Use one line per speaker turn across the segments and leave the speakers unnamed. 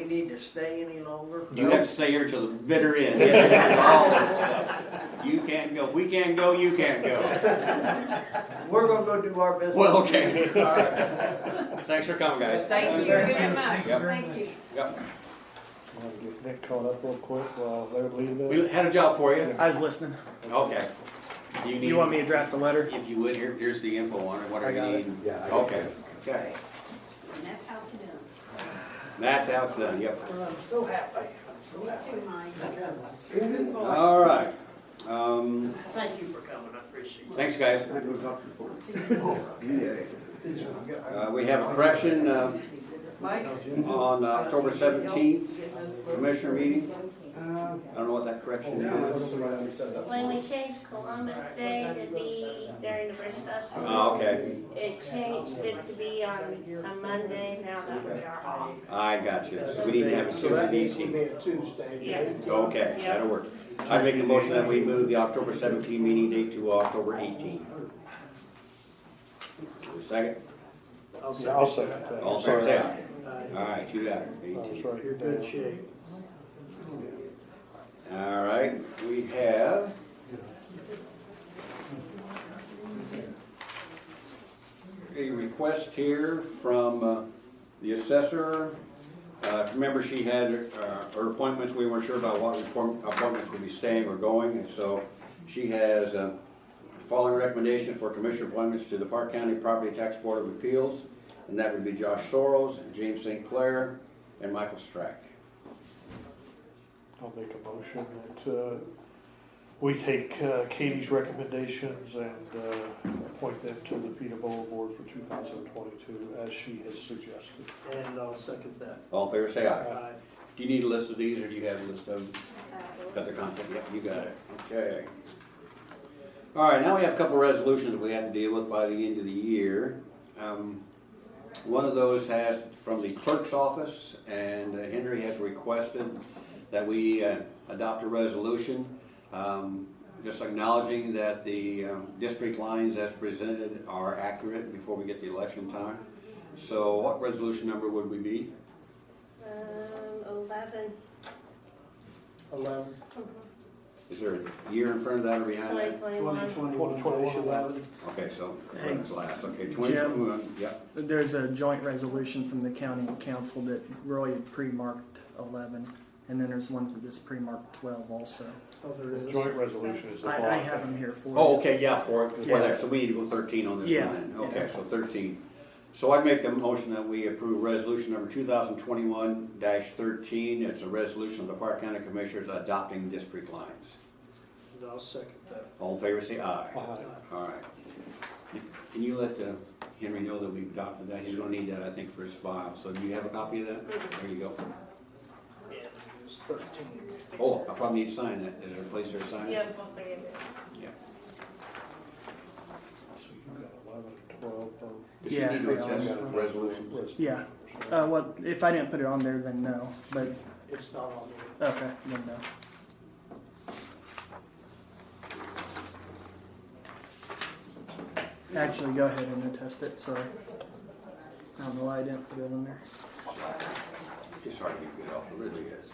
need to stay any longer?
You have to stay here till the bitter end. All this stuff. You can't go. If we can't go, you can't go.
We're gonna go do our business.
Well, okay. All right. Thanks for coming, guys.
Thank you very much, thank you.
Yep.
Wanna Get Nick caught up real quick while they're leaving.
We had a job for you.
I was listening.
Okay. Do
Do you want me to draft a letter?
If you would, here, here's the info on it. What
I
are you
got it.
needing?
Yeah, I got
Okay. Okay.
And that's how it's done,
That's how it's done. Yep.
Well, I'm so happy, I'm so happy.
to my,
All right. Um,
Thank you for coming, I appreciate it.
thanks, guys. Uh, we have a correction, uh,
Mike?
on October seventeenth, commissioner meeting.
Uh,
I don't know what that correction is.
When we changed Columbus Day to be during the Bridge Festival,
Oh, okay.
it changed it to be on a Monday now that we are off.
I got you. So we need to have a Tuesday meeting.
a Tuesday.
Yeah.
Okay, that'll work. I make the motion that we move the October seventeen meeting date to October eighteen. Second,
Yeah, I'll say that.
all fair and sound. All right, you got it, eighteen.
You're good shape.
All right, we have. A request here from uh, the assessor. Uh, if you Remember, she had uh, her appointments, we weren't sure about what appoint- appointments would be staying or going, and so she has uh, following recommendation for commissioner appointments to the Park County Property Tax Board of Appeals, and that would be Josh Soros, James St. Clair, and Michael Strack.
I'll make a motion that, uh, we take uh, Katie's recommendations and, uh, appoint them to the Peterborough Board for two thousand twenty-two as she has suggested.
And I'll second that.
All in favor, say aye. Do you need a list of these, or do you have a list of them? Got the content, yeah, you got it, okay. All right, now we have a couple of resolutions we have to deal with by the end of the year. Um, One of those has, from the clerk's office, and uh, Henry has requested that we uh, adopt a resolution um, just acknowledging that the um, district lines as presented are accurate before we get the election time. So what resolution number would we be?
Um, eleven,
Eleven,
Is there a year in front of that or behind
twenty
that?
twenty-one.
Okay, so, that's last, okay, twenty, yep,
There's a joint resolution from the county and council that Roy had pre-marked eleven, and then there's one for this pre-marked twelve also.
Joint resolution is the
I,
bond.
I have them here for you.
oh, okay, yeah, for, for
Yeah.
that, so we need to go thirteen on this
Yeah.
one then, okay, so thirteen. So I make the motion that we approve resolution number two thousand twenty-one thirteen, it's a resolution of the Park County Commissioners adopting district lines.
I'll second that.
All in favor, say aye.
Aye.
All right. Can you let uh, Henry know that we've adopted that, he's gonna need that, I think, for his file, so do you have a copy of that? There you go.
Yeah, it was thirteen.
Oh, I probably need to sign that, is there a place there to sign it?
You have all three of it.
Yeah.
So you got eleven and twelve, um,
Does she
Yeah,
need to
they all
accept
got
the resolution?
resolution.
Yeah, uh, what, if I didn't put it on there, then no, but,
It's not on there.
okay, then no. Actually, go ahead and attest it, sorry. I don't know why I didn't put it on there.
It's hard to get good off, it really is.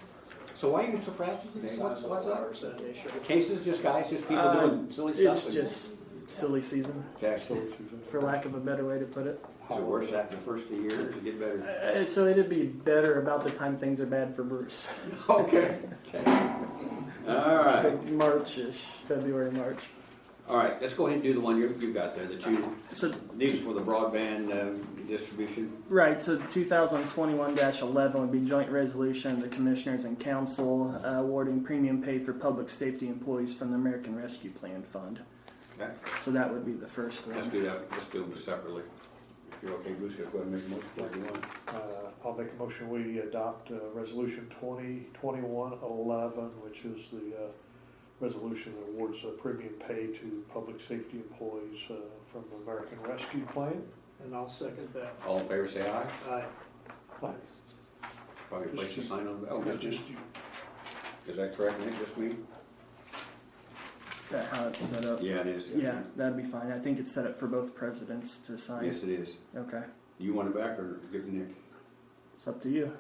So why are you so frazzled today? What's, what's up?
Sunday, sure.
Cases, just guys, just people
Uh,
doing silly stuff?
It's
and-
just silly season,
Okay,
So
so
it's-
for lack of a better way to put it.
is it worse after the first of the year, to get better?
Uh, so it'd be better about the time things are bad for Bruce.
Okay. All
So
right,
March-ish, February, March.
all right, let's go ahead and do the one you, you've got there, the two,
So
these for the broadband, um, distribution.
Right, so 2021-11 would be joint resolution of the commissioners and council uh, awarding premium pay for public safety employees from the American Rescue Plan Fund.
Okay,
So that would be the first
let's
one.
do that, let's do them separately. If you're okay, Bruce, just go ahead and make a motion if you want.
Uh, I'll make a motion, we adopt uh, Resolution 2021-11, which is the uh, resolution that awards uh, premium pay to public safety employees uh, from the American Rescue Plan.
And I'll second that.
All in favor, say aye.
Aye.
Probably a place to sign on, oh,
It's
just,
just you.
is that correct, Nick, just me?
Is that how it's set up?
Yeah, it is.
Yeah, that'd be fine. I think it's set up for both presidents to sign.
Yes, it is.
Okay,
You want it back or give it to Nick?
it's up to you.